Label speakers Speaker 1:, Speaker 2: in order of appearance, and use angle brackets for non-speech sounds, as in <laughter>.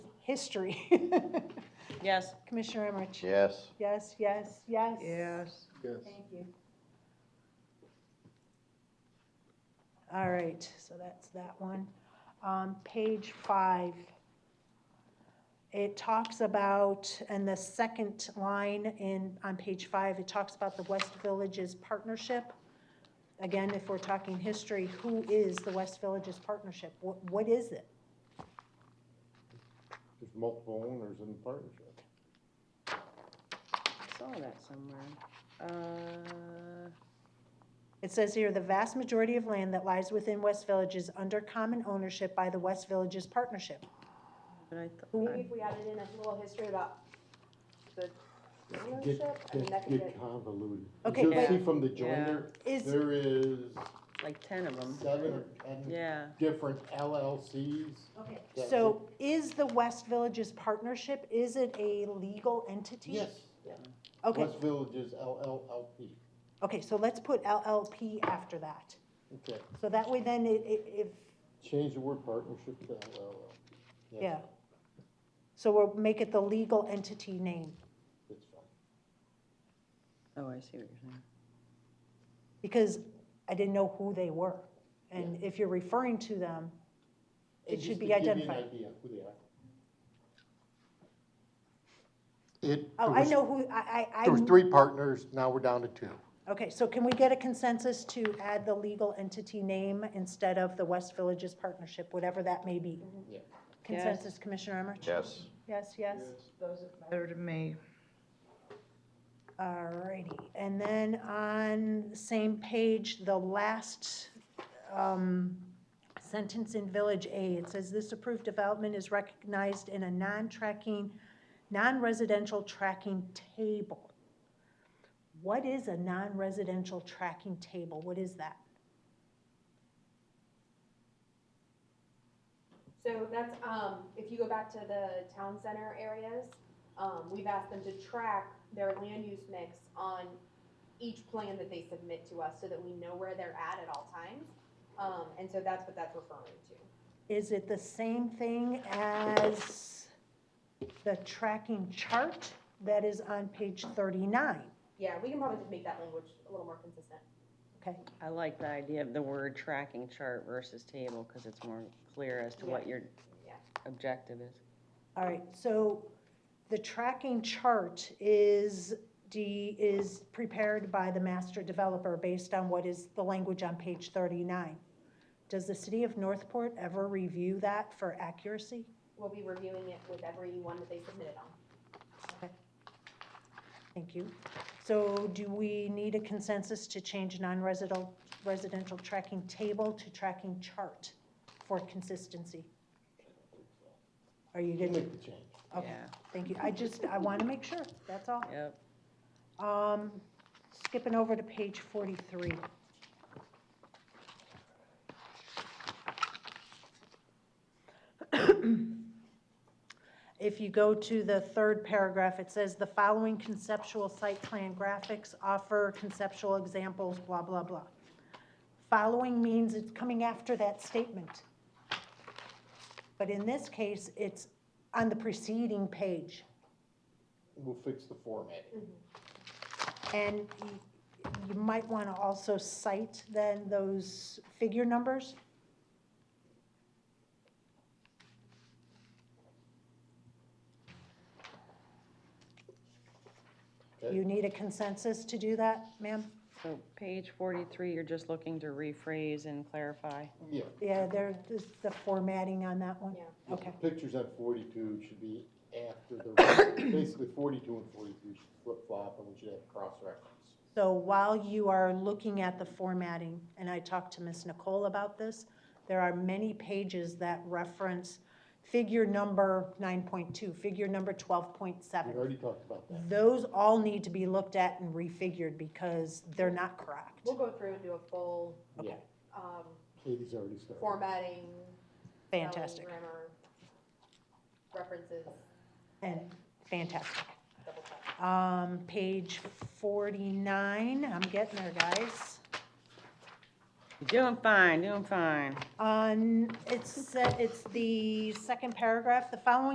Speaker 1: history. <laughs>
Speaker 2: Yes.
Speaker 1: Commissioner Emmerich?
Speaker 3: Yes.
Speaker 1: Yes, yes, yes.
Speaker 4: Yes.
Speaker 5: Yes.
Speaker 1: Thank you. All right, so that's that one. On page five, it talks about, and the second line in, on page five, it talks about the West Villages Partnership. Again, if we're talking history, who is the West Villages Partnership? What, what is it?
Speaker 5: There's multiple owners in the partnership.
Speaker 2: I saw that somewhere. Uh,
Speaker 1: It says here, the vast majority of land that lies within West Village is under common ownership by the West Villages Partnership.
Speaker 2: but I thought,
Speaker 6: Maybe if we added in a little history about the
Speaker 5: Get-
Speaker 6: ownership, I mean,
Speaker 5: get-
Speaker 6: that could
Speaker 5: Get
Speaker 6: get,
Speaker 5: convoluted.
Speaker 1: Okay,
Speaker 5: You'll
Speaker 2: but-
Speaker 5: see from the joiner,
Speaker 1: Is,
Speaker 5: there is
Speaker 2: like ten of them.
Speaker 5: seven or ten
Speaker 2: Yeah,
Speaker 5: different LLCs.
Speaker 1: okay,
Speaker 5: that
Speaker 1: so is the West Villages Partnership, is it a legal entity?
Speaker 5: Yes,
Speaker 1: Okay,
Speaker 5: West Villages LLLP,
Speaker 1: okay, so let's put LLP after that.
Speaker 5: okay.
Speaker 1: So that way then it, it, if,
Speaker 5: Change the word partnership to LLL. That's-
Speaker 1: yeah. So we'll make it the legal entity name,
Speaker 5: That's fine.
Speaker 2: oh, I see what you're saying.
Speaker 1: because I didn't know who they were. And if you're referring to them, It
Speaker 5: And
Speaker 1: should
Speaker 5: just
Speaker 1: be
Speaker 5: to give you an
Speaker 1: identified.
Speaker 5: idea who they are. It.
Speaker 1: oh,
Speaker 5: there
Speaker 1: I
Speaker 5: was-
Speaker 1: know who, I, I, I.
Speaker 5: There was three partners, now we're down to two.
Speaker 1: Okay, so can we get a consensus to add the legal entity name instead of the West Villages Partnership, whatever that may be?
Speaker 5: Yeah.
Speaker 1: Consensus, Commissioner Emmerich?
Speaker 3: Yes.
Speaker 1: Yes, yes.
Speaker 4: Better to me.
Speaker 1: All righty. And then on same page, the last um, sentence in Village A, it says, "This approved development is recognized in a non-tracking, non-residential tracking table." What is a non-residential tracking table? What is that?
Speaker 6: so that's, um, if you go back to the town center areas, um, we've asked them to track their land use mix on each plan that they submit to us so that we know where they're at at all times. Um, and so that's what that's referring to.
Speaker 1: Is it the same thing as the tracking chart that is on page 39?
Speaker 6: Yeah, we can probably just make that language a little more consistent.
Speaker 1: Okay,
Speaker 2: I like the idea of the word tracking chart versus table, because it's more clear as to what your
Speaker 6: Yeah.
Speaker 2: objective is.
Speaker 1: all right, so the tracking chart is, D, is prepared by the master developer based on what is the language on page 39. Does the city of Northport ever review that for accuracy?
Speaker 6: We'll be reviewing it with every one that they submitted on.
Speaker 1: Thank you. So do we need a consensus to change non-residential, residential tracking table to tracking chart for consistency? Are you
Speaker 5: You
Speaker 1: good?
Speaker 5: make the change.
Speaker 1: Okay,
Speaker 2: Yeah,
Speaker 1: thank you. I just, I want to make sure, that's all.
Speaker 2: yep.
Speaker 1: Um, skipping over to page forty-three. <clears throat> If you go to the third paragraph, it says the following conceptual site plan graphics offer conceptual examples, blah, blah, blah. Following means it's coming after that statement. But in this case, it's on the preceding page.
Speaker 5: We'll fix the formatting.
Speaker 1: Mm-hmm. And y- you might want to also cite then those figure numbers.
Speaker 5: Okay.
Speaker 1: You need a consensus to do that, ma'am?
Speaker 2: So page forty-three, you're just looking to rephrase and clarify.
Speaker 5: Yeah.
Speaker 1: Yeah, there, this- the formatting on that one.
Speaker 6: Yeah.
Speaker 5: the
Speaker 1: Okay.
Speaker 5: Pictures at forty-two should be after the, <coughs> basically forty-two and forty-three should flip-flop, and we should have cross-reference.
Speaker 1: So while you are looking at the formatting, and I talked to Ms. Nicole about this, there are many pages that reference figure number 9.2, figure number 12.7.
Speaker 5: We already talked about that.
Speaker 1: Those all need to be looked at and refigured because they're not correct.
Speaker 6: We'll go through and do a full,
Speaker 5: Yeah,
Speaker 6: um,
Speaker 5: Katie's already started.
Speaker 6: formatting. spelling,
Speaker 1: Fantastic,
Speaker 6: Grammar, references,
Speaker 1: and fantastic.
Speaker 6: double check.
Speaker 1: Um, page forty-nine, I'm getting there, guys.
Speaker 2: You're doing fine, doing fine.
Speaker 1: On, it's, it's the second paragraph, the following